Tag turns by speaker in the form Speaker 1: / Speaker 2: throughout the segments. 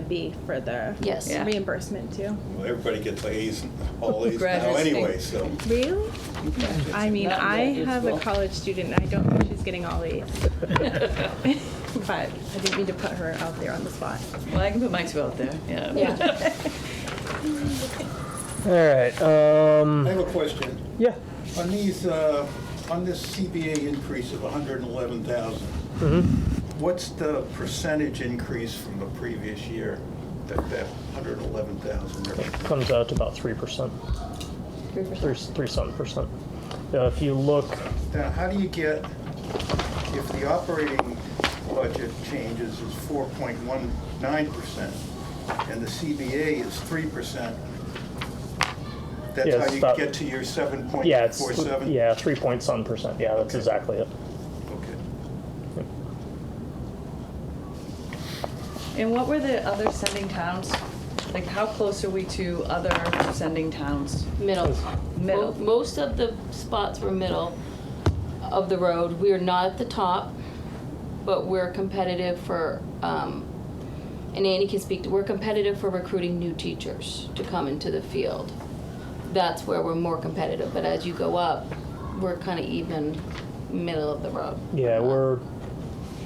Speaker 1: be for the
Speaker 2: Yes.
Speaker 3: Yeah.
Speaker 1: reimbursement too.
Speaker 4: Well, everybody gets A's and all A's now
Speaker 3: Graduates
Speaker 4: anyway,
Speaker 3: think-
Speaker 4: so.
Speaker 1: Really? I mean,
Speaker 3: Not
Speaker 1: I
Speaker 3: yet, it's
Speaker 1: have a
Speaker 3: well-
Speaker 1: college student. and I don't know if she's getting all A's, but I didn't mean to put her out there on the spot.
Speaker 3: Well, I can put mine two out there, yeah.
Speaker 2: Yeah.
Speaker 5: All right. Um,
Speaker 4: I have a question.
Speaker 5: yeah.
Speaker 4: On these, uh, on this CBA increase of 111,000,
Speaker 5: Mm-hmm.
Speaker 4: what's the percentage increase from the previous year that that 111,000 represents?
Speaker 5: Comes out to about 3%,
Speaker 2: Three
Speaker 5: three,
Speaker 2: percent.
Speaker 5: three something percent. Uh, if you look,
Speaker 4: Now, how do you get, if the operating budget changes is 4.19% and the CBA is 3%, that's
Speaker 5: Yeah,
Speaker 4: how
Speaker 5: it's
Speaker 4: you
Speaker 5: about-
Speaker 4: get to your 7.47?
Speaker 5: yeah, it's yeah, three point some percent. Yeah, that's exactly it.
Speaker 4: Okay.
Speaker 3: And what were the other sending towns? Like, how close are we to other sending towns?
Speaker 2: Middle.
Speaker 3: Middle.
Speaker 2: Mo- Most of the spots were middle of the road. We are not at the top, but we're competitive for, um, and Annie can speak, to we're competitive for recruiting new teachers to come into the field. That's where we're more competitive, but as you go up, we're kind of even middle of the road.
Speaker 5: Yeah, we're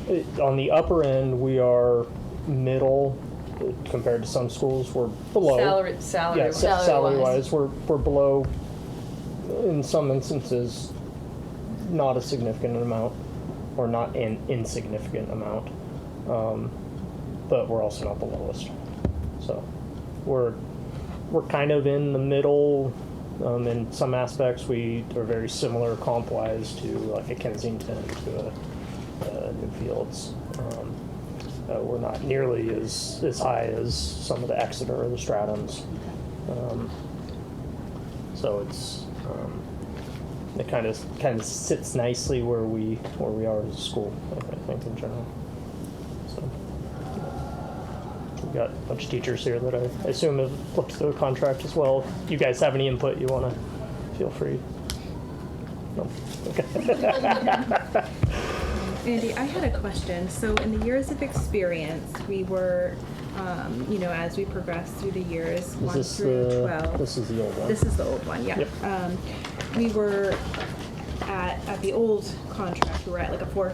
Speaker 5: it, on the upper end. We are middle uh, compared to some schools. We're below.
Speaker 3: Salary, salary.
Speaker 5: yeah,
Speaker 3: was-
Speaker 2: sal-
Speaker 5: salary
Speaker 2: salary-wise.
Speaker 5: wise, we're we're below. uh, In some instances, not a significant amount, or not an insignificant amount, um, but we're also not the lowest. So, we're we're kind of in the middle. Um, in some aspects, we are very similar comp wise to like a Kensington to a, uh Newfields. Um, uh, we're not nearly as, as high as some of the Exeter or the Stratums. Um, so it's um, it kind of kind of sits nicely where we where we are as a school. I thi- think in general. So we've got a bunch of teachers here that I assume have looked through the contract as well. If you guys have any input you want to, feel free. No. Okay.
Speaker 1: Andy, I had a question. So, in the years of experience, we were, um, you know, as we progressed through the years,
Speaker 5: is
Speaker 1: one
Speaker 5: this
Speaker 1: through
Speaker 5: the
Speaker 1: twelve.
Speaker 5: this is the old one?
Speaker 1: This is the old one, yeah.
Speaker 5: Yep.
Speaker 1: Um, we were at, at the old contract, we were at like a four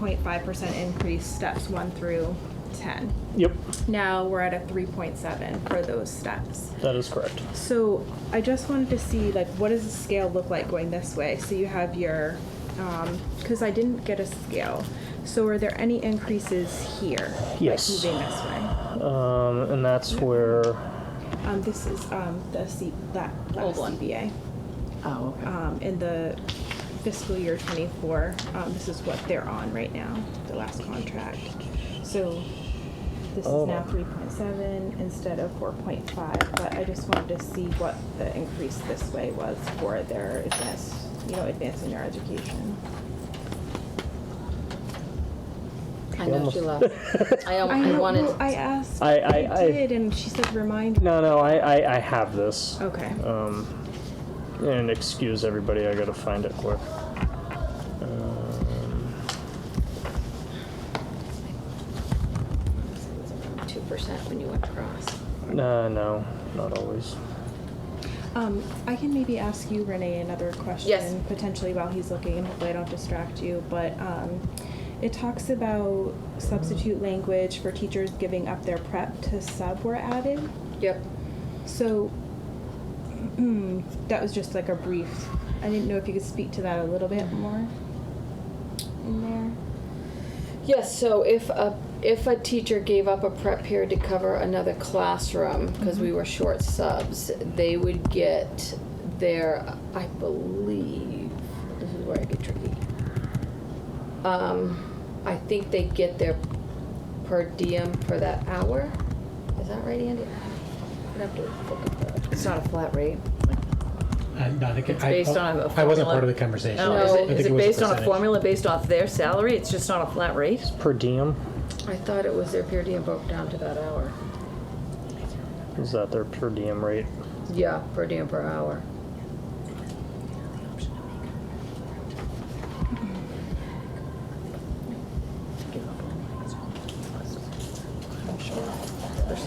Speaker 1: point five percent increase, steps one through ten.
Speaker 5: yep,
Speaker 1: Now we're at a three point seven for those steps.
Speaker 5: that is correct.
Speaker 1: So I just wanted to see like what does the scale look like going this way? So you have your, because I didn't get a scale. So are there any increases here?
Speaker 5: Yes.
Speaker 1: Like moving this way.
Speaker 5: Um, and that's where
Speaker 1: Um, this is um, the C that
Speaker 2: Old
Speaker 1: last
Speaker 2: one.
Speaker 1: CBA.
Speaker 3: Oh, okay.
Speaker 1: um, in the fiscal year '24. Um, this is what they're on right now, the last contract. So this
Speaker 5: Oh.
Speaker 1: is now 3.7 instead of 4.5. But I just wanted to see what the increase this way was for their advanced, you know, advancing their education.
Speaker 2: I know she left. I, al- Oh, I
Speaker 1: know-
Speaker 2: wanted,
Speaker 1: well, I asked.
Speaker 5: I- I- I-
Speaker 1: did, and she said, "Remind me."
Speaker 5: No, no, I, I, I have this.
Speaker 1: Okay.
Speaker 5: Um, and excuse everybody, I gotta find it quick. Um,
Speaker 2: two percent when you went across.
Speaker 5: no, no, not always.
Speaker 1: Um, I can maybe ask you, Renee, another question potentially while he's looking, and hopefully I don't distract you. But um, it talks about substitute language for teachers giving up their prep to sub were added.
Speaker 2: Yep.
Speaker 1: So that was just like a brief. I didn't know if you could speak to that a little bit more in there.
Speaker 2: Yes, so if a, if a teacher gave up a prep period to cover another classroom, because we were short subs, they would get their, I believe, this is where I get tricky. Um, I think they get their per diem for that hour. Is that right, Andy? I'd have to look up that. It's not a flat rate.
Speaker 6: I'm not, I think-
Speaker 3: It's
Speaker 6: I- oh,
Speaker 3: based on a
Speaker 6: I wasn't
Speaker 3: formula.
Speaker 6: part of the conversation.
Speaker 3: Oh,
Speaker 6: I
Speaker 3: is
Speaker 6: think
Speaker 3: it, is it
Speaker 6: was
Speaker 3: based on a
Speaker 6: percentage.
Speaker 3: formula based off their salary? It's just not a flat rate?
Speaker 5: Per diem,
Speaker 2: I thought it was their per diem broke down to that hour.
Speaker 5: is that their per diem rate?
Speaker 2: Yeah, per diem per hour.